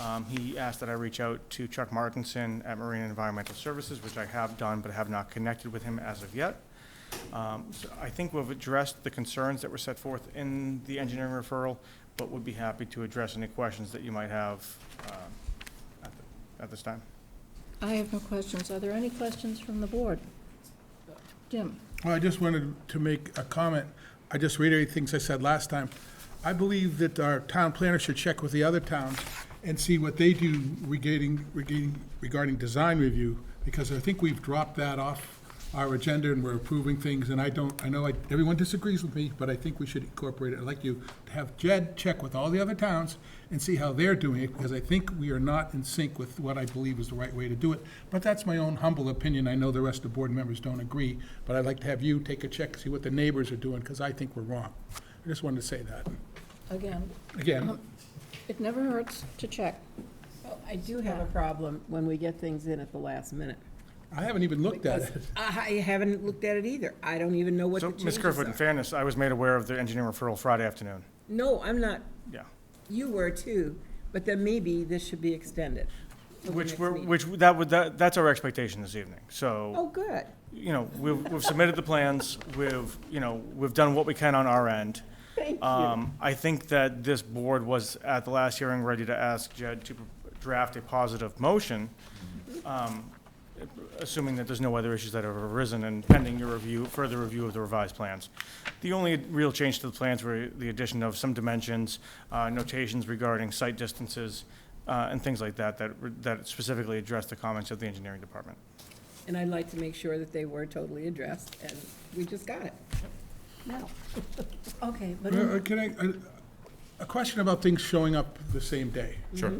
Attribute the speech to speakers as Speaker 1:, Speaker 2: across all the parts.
Speaker 1: Um, He asked that I reach out to Chuck Markinson at Marine Environmental Services, which I have done, but have not connected with him as of yet. Um, so I think we've addressed the concerns that were set forth in the engineering referral, but would be happy to address any questions that you might have um, at the- at this time.
Speaker 2: I have no questions. Are there any questions from the board? Jim?
Speaker 3: Well, I just wanted to make a comment. I just reiterate things I said last time. I believe that our town planner should check with the other towns and see what they do regarding, regarding, regarding design review, because I think we've dropped that off our agenda and we're approving things, and I don't, I know I- everyone disagrees with me, but I think we should incorporate it. I'd like you to have Jed check with all the other towns and see how they're doing it, because I think we are not in sync with what I believe is the right way to do it. But that's my own humble opinion. I know the rest of the board members don't agree, but I'd like to have you take a check, see what the neighbors are doing, because I think we're wrong. I just wanted to say that.
Speaker 2: Again,
Speaker 3: Again,
Speaker 2: it never hurts to check.
Speaker 4: Well, Oh, I do have a problem when we get things in at the last minute.
Speaker 3: I haven't even looked at it.
Speaker 4: I haven't looked at it either. I don't even know what the
Speaker 1: So, Ms.
Speaker 4: changes
Speaker 1: Kerfoot, in
Speaker 4: are.
Speaker 1: fairness, I was made aware of the engineering referral Friday afternoon.
Speaker 4: No, I'm not.
Speaker 1: Yeah.
Speaker 4: You were too, but then maybe this should be extended. till the
Speaker 1: Which
Speaker 4: next
Speaker 1: we're,
Speaker 4: meeting.
Speaker 1: which, that would, that, that's our expectation this evening.
Speaker 4: Oh,
Speaker 1: So,
Speaker 4: good.
Speaker 1: you know, we've, we've submitted the plans, we've, you know, we've done what we can on our end.
Speaker 4: Thank you.
Speaker 1: Um, I think that this board was at the last hearing ready to ask Jed to draft a positive motion, um, assuming that there's no other issues that have arisen and pending your review, further review of the revised plans. The only real change to the plans were the addition of some dimensions, uh, notations regarding site distances, uh, and things like that, that, were- that specifically address the comments of the engineering department.
Speaker 4: And I'd like to make sure that they were totally addressed, and we just got it.
Speaker 2: No. Okay, but
Speaker 3: Uh, Can I, uh, a question about things showing up the same day. Mm-hmm.
Speaker 1: Sure.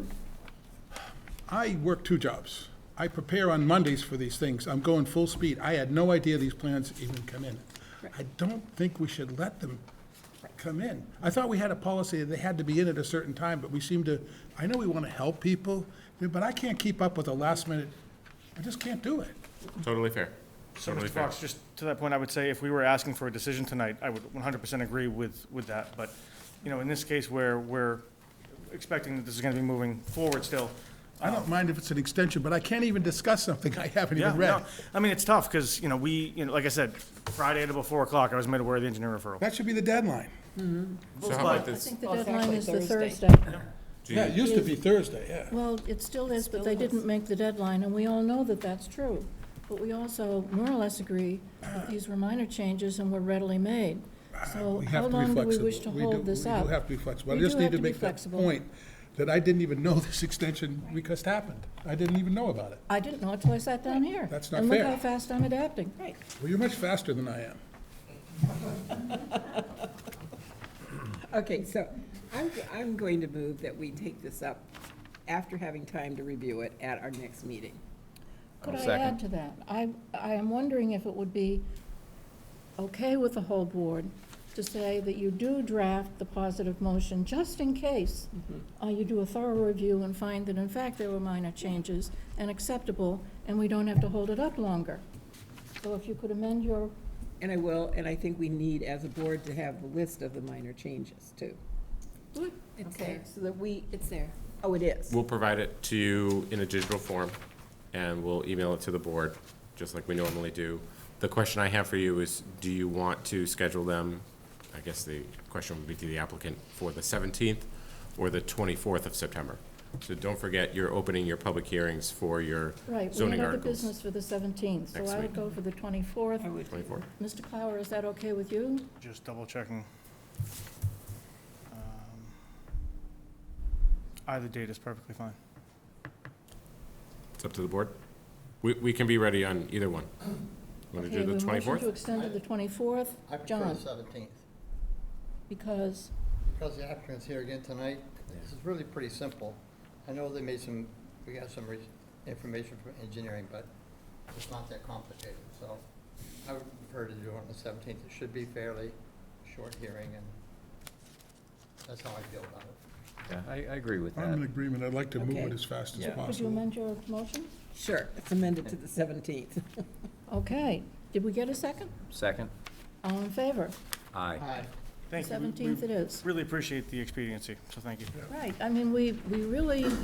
Speaker 3: I work two jobs. I prepare on Mondays for these things. I'm going full speed. I had no idea these plans even come in. I don't think we should let them come in. I thought we had a policy that they had to be in at a certain time, but we seem to, I know we want to help people, but I can't keep up with the last minute. I just can't do it.
Speaker 5: Totally fair.
Speaker 1: So,
Speaker 5: Totally
Speaker 1: Mr.
Speaker 5: fair.
Speaker 1: Fox, just to that point, I would say if we were asking for a decision tonight, I would one hundred percent agree with, with that. But, you know, in this case where we're expecting that this is gonna be moving forward still.
Speaker 3: I don't mind if it's an extension, but I can't even discuss something I haven't
Speaker 1: Yeah,
Speaker 3: even read.
Speaker 1: no, I mean, it's tough, because, you know, we, you know, like I said, Friday at about four o'clock, I was made aware of the engineer referral.
Speaker 3: That should be the deadline.
Speaker 5: So how about
Speaker 2: I
Speaker 5: this?
Speaker 2: think the
Speaker 4: Well, it's
Speaker 2: deadline
Speaker 4: actually
Speaker 2: is the
Speaker 4: Thursday.
Speaker 2: Thursday.
Speaker 5: Do
Speaker 3: Yeah,
Speaker 5: you-
Speaker 3: it used to be Thursday, yeah.
Speaker 2: Well, it still is, but they didn't make the deadline, and we all know that that's true. But we also more or less agree that these were minor changes and were readily made. So
Speaker 3: Uh, We have
Speaker 2: how
Speaker 3: to be
Speaker 2: long do we
Speaker 3: flexible.
Speaker 2: wish to
Speaker 3: We do-
Speaker 2: hold this
Speaker 3: We
Speaker 2: up?
Speaker 3: do have to be flexible. I
Speaker 2: We
Speaker 3: just
Speaker 2: do
Speaker 3: need
Speaker 2: have
Speaker 3: to
Speaker 2: to be
Speaker 3: make that
Speaker 2: flexible.
Speaker 3: point, that I didn't even know this extension request happened. I didn't even know about it.
Speaker 2: I didn't know it till I sat down here.
Speaker 3: That's not
Speaker 2: And look
Speaker 3: fair.
Speaker 2: how fast I'm adapting.
Speaker 4: Right.
Speaker 3: Well, you're much faster than I am.
Speaker 4: Okay, so I'm, I'm going to move that we take this up after having time to review it at our next meeting.
Speaker 2: Could
Speaker 5: I'll
Speaker 2: I
Speaker 5: second.
Speaker 2: add to that? I, I am wondering if it would be okay with the whole board to say that you do draft the positive motion, just in case
Speaker 6: Mm-hmm.
Speaker 2: uh, you do a thorough review and find that in fact there were minor changes and acceptable, and we don't have to hold it up longer. So if you could amend your,
Speaker 4: And I will, and I think we need, as a board, to have the list of the minor changes, too.
Speaker 7: It's
Speaker 4: Okay,
Speaker 7: there.
Speaker 4: So that we,
Speaker 7: It's there.
Speaker 4: oh, it is.
Speaker 5: We'll provide it to you in a digital form, and we'll email it to the board, just like we normally do. The question I have for you is, do you want to schedule them, I guess the question would be to the applicant, for the 17th or the 24th of September? So don't forget, you're opening your public hearings for your
Speaker 2: right, we
Speaker 5: zoning
Speaker 2: have other
Speaker 5: articles.
Speaker 2: business for the 17th, so
Speaker 5: Next
Speaker 2: I would
Speaker 5: week.
Speaker 2: go for the
Speaker 6: Oh.
Speaker 2: 24th.
Speaker 5: 24th?
Speaker 2: Mr. Clower, is that okay with you?
Speaker 1: Just double checking. Um, Either date is perfectly fine.
Speaker 5: It's up to the board. We, we can be ready on either one. Want to
Speaker 2: Okay,
Speaker 5: do
Speaker 2: we
Speaker 5: the
Speaker 2: motion
Speaker 5: 24th?
Speaker 2: To extend to the 24th,
Speaker 6: I prefer
Speaker 2: John,
Speaker 6: the seventeenth,
Speaker 2: because,
Speaker 6: because the applicant's here again tonight. This is really pretty simple. I know they made some, we got some re- information from engineering, but it's not that complicated, so I would prefer to do it on the seventeenth. It should be fairly short hearing, and that's how I feel about it.
Speaker 8: Yeah, I, I agree with
Speaker 3: I'm in
Speaker 8: that.
Speaker 3: agreement. I'd like to move it
Speaker 4: Okay.
Speaker 3: as fast as
Speaker 8: Yeah.
Speaker 2: could you
Speaker 3: possible.
Speaker 2: amend your motion?
Speaker 4: Sure, it's amended to the 17th.
Speaker 2: Okay, did we get a second?
Speaker 8: Second?
Speaker 2: All in favor?
Speaker 8: Aye.
Speaker 6: Aye.
Speaker 1: Thank you. We- we
Speaker 2: 17th it is.
Speaker 1: Really appreciate the expediency, so thank you.
Speaker 2: Right, I mean, we, we really